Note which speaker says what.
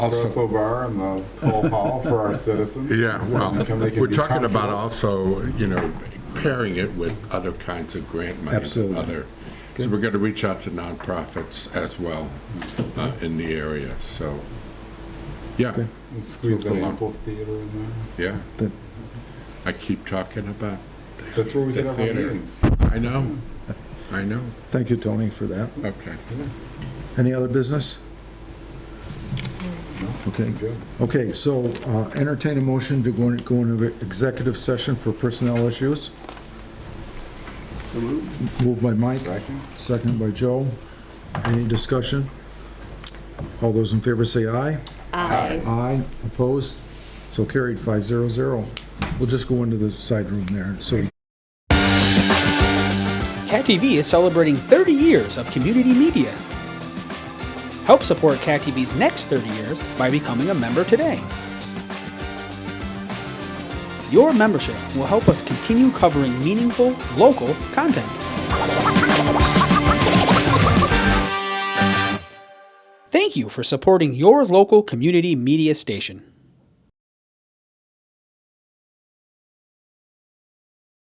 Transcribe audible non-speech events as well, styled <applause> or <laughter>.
Speaker 1: Throw us
Speaker 2: also,
Speaker 1: a bar in the coal hall for our citizens.
Speaker 2: <laughs> yeah, well,
Speaker 1: They can- they can
Speaker 2: we're
Speaker 1: be
Speaker 2: talking about
Speaker 1: comfortable.
Speaker 2: also, you know, pairing it with other kinds of grant money.
Speaker 3: Absolutely.
Speaker 2: Other, so we're going to reach out to nonprofits as well uh, in the area, so, yeah,
Speaker 1: Squeeze an
Speaker 2: Cool.
Speaker 1: ample theater in there.
Speaker 2: yeah.
Speaker 3: That-
Speaker 2: I keep talking about
Speaker 1: That's where we
Speaker 2: the
Speaker 1: could have our
Speaker 2: theater.
Speaker 1: meetings.
Speaker 2: I know, I know,
Speaker 3: Thank you, Tony, for that.
Speaker 2: okay.
Speaker 3: Any other business? Okay,
Speaker 1: Good.
Speaker 3: okay, so uh, entertain a motion to go in- go into executive session for personnel issues. Moved by Mike,
Speaker 1: Second?
Speaker 3: seconded by Joe. Any discussion? All those in favor say aye.
Speaker 1: Aye.
Speaker 3: Aye, opposed, so carried, 500. We'll just go into the side room there, so we
Speaker 4: Cat TV is celebrating 30 years of community media. Help support Cat TV's next 30 years by becoming a member today. Your membership will help us continue covering meaningful, local content. Thank you for supporting your local community media station.